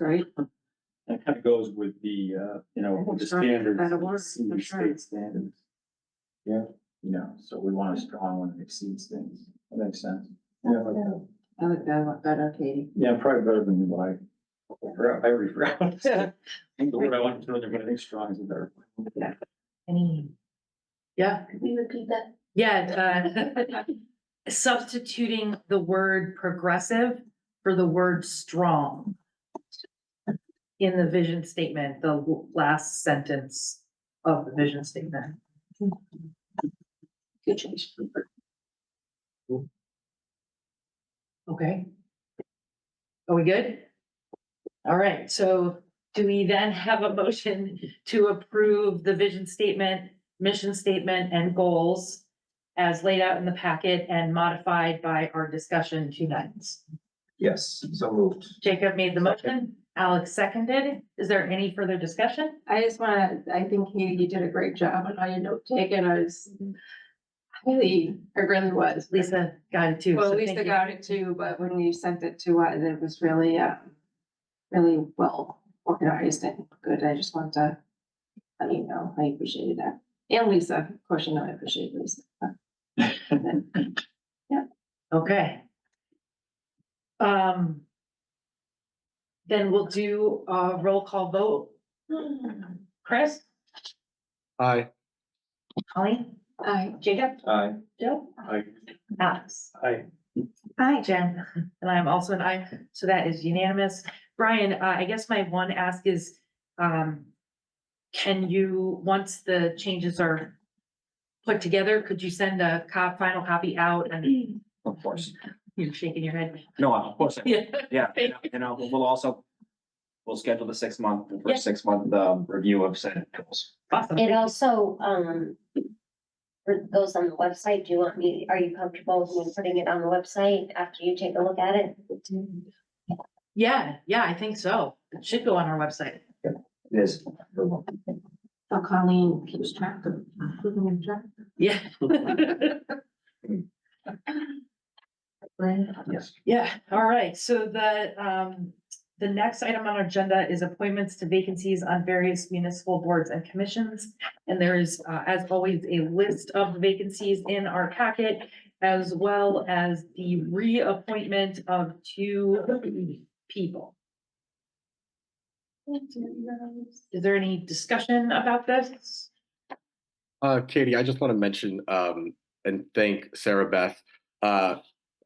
right? That kind of goes with the, uh, you know, with the Sure, standards. that'll work, exceed for sure. State standards. Yeah, you know, so we want a strong one that exceeds things. That makes sense. Yeah, like that. I like that one better, Katie. Yeah, probably better than what I, I forgot- I already forgot. I think the word I wanted to throw there, but I think strong is a better. Yeah, Could we repeat that? yeah, uh, substituting the word progressive for the word strong. In the vision statement, the l- last sentence of the vision statement. Good change. Okay. Are we good? All right, so do we then have a motion to approve the vision statement, mission statement and goals? As laid out in the packet and modified by our discussion tonight? Yes, so moved. Jacob made the motion, Alex seconded. Is there any further discussion? I just wanna, I think Katie, you did a great job on all your note taking, I was highly, I really was. Mhm. Lisa got it too. so Well, thank Lisa you. got it too, but when you sent it to us, it was really, uh, really well organized and good, I just wanted to let you know, I appreciated that. And Lisa, of course, you know I appreciate Lisa. Okay. Um. Then we'll do a roll call vote. Chris, Aye. Colleen, I, Jacob, Aye. Jill, Aye. Alex. Aye. Hi, Jen. And I'm also an aye, so that is unanimous. Brian, uh, I guess my one ask is, um. Can you, once the changes are put together, could you send a cop, final copy out and Of course. you're shaking your head? No, of course. Yeah. Yeah, and and I'll- we'll also, we'll schedule the six month, the first six month, um, review of Senate goals. Awesome. It also, um, for- goes on the website. Do you want me, are you comfortable with me putting it on the website after you take a look at it? Yeah, yeah, I think so. It should go on our website. It is. oh, Colleen keeps track of, keeping in track. Yeah. Yes. Yeah, all right. So the, um, the next item on our agenda is appointments to vacancies on various municipal boards and commissions. And there is, uh, as always, a list of vacancies in our packet as well as the reappointment of two people. Is there any discussion about this? Uh, Katie, I just want to mention um, and thank Sarah Beth. Uh,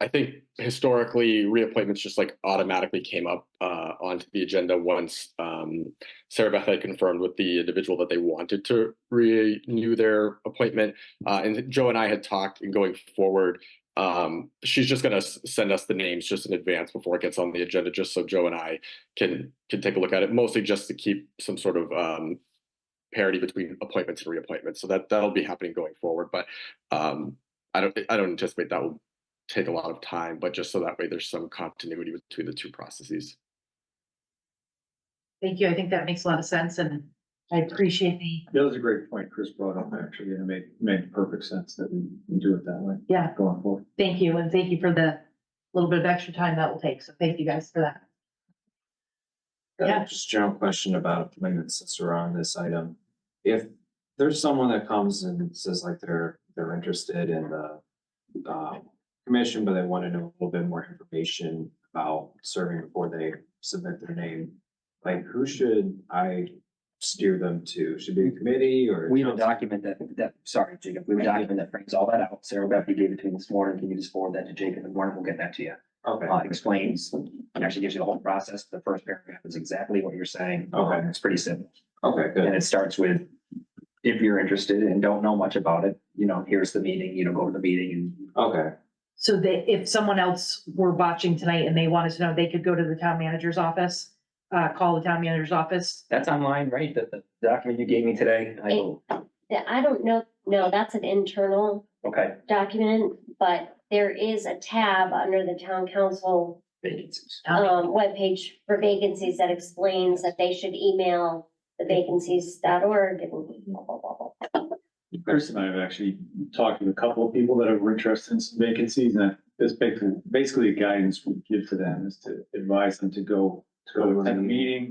I think historically reappointments just like automatically came up uh, onto the agenda once um, Sarah Beth had confirmed with the individual that they wanted to renew their appointment. Uh, and Joe and I had talked and going forward, um, she's just going to send us the names just in advance before it gets on the agenda, just so Joe and I can can take a look at it, mostly just to keep some sort of um, parity between appointments and reappointments. So that that'll be happening going forward. But um, I don't I don't anticipate that will take a lot of time. But just so that way, there's some continuity between the two processes. Thank you. I think that makes a lot of sense and I appreciate the, That was a great point Chris brought up, actually, and it made, made perfect sense that we we do it that way yeah, going forward. thank you. And thank you for the little bit of extra time that will take. So thank you guys for that. Yeah. Just general question about appointments since we're on this item. If there's someone that comes and says like they're, they're interested in the um, commission, but they want to know a little bit more information about serving before they submit their name. Like who should I steer them to? Should it be a committee or? We have a document that, that, sorry, Jacob, we have a document that brings all that out. Sarah Beth, you gave it to me this morning. Can you just forward that to Jacob in the morning? We'll get that to you. Okay, Uh, explains, it actually gives you the whole process. The first paragraph is exactly what you're saying. Okay. Um, It's pretty simple. okay, good. And it starts with, if you're interested and don't know much about it, you know, here's the meeting, you know, go to the meeting and Okay, So that if someone else were watching tonight and they wanted to know, they could go to the town manager's office, uh, call the town manager's office. that's online, right? The, the document you gave me today. I will, Yeah, I don't know, no, that's an internal okay, document, but there is a tab under the town council vacancies. Um, um, webpage for vacancies that explains that they should email the vacancies.org and blah, blah, blah, blah. Chris and I have actually talked with a couple of people that are interested in some uh, vacancies, and this basically, basically guidance we give to them is to advise them to go Go to a At a meeting,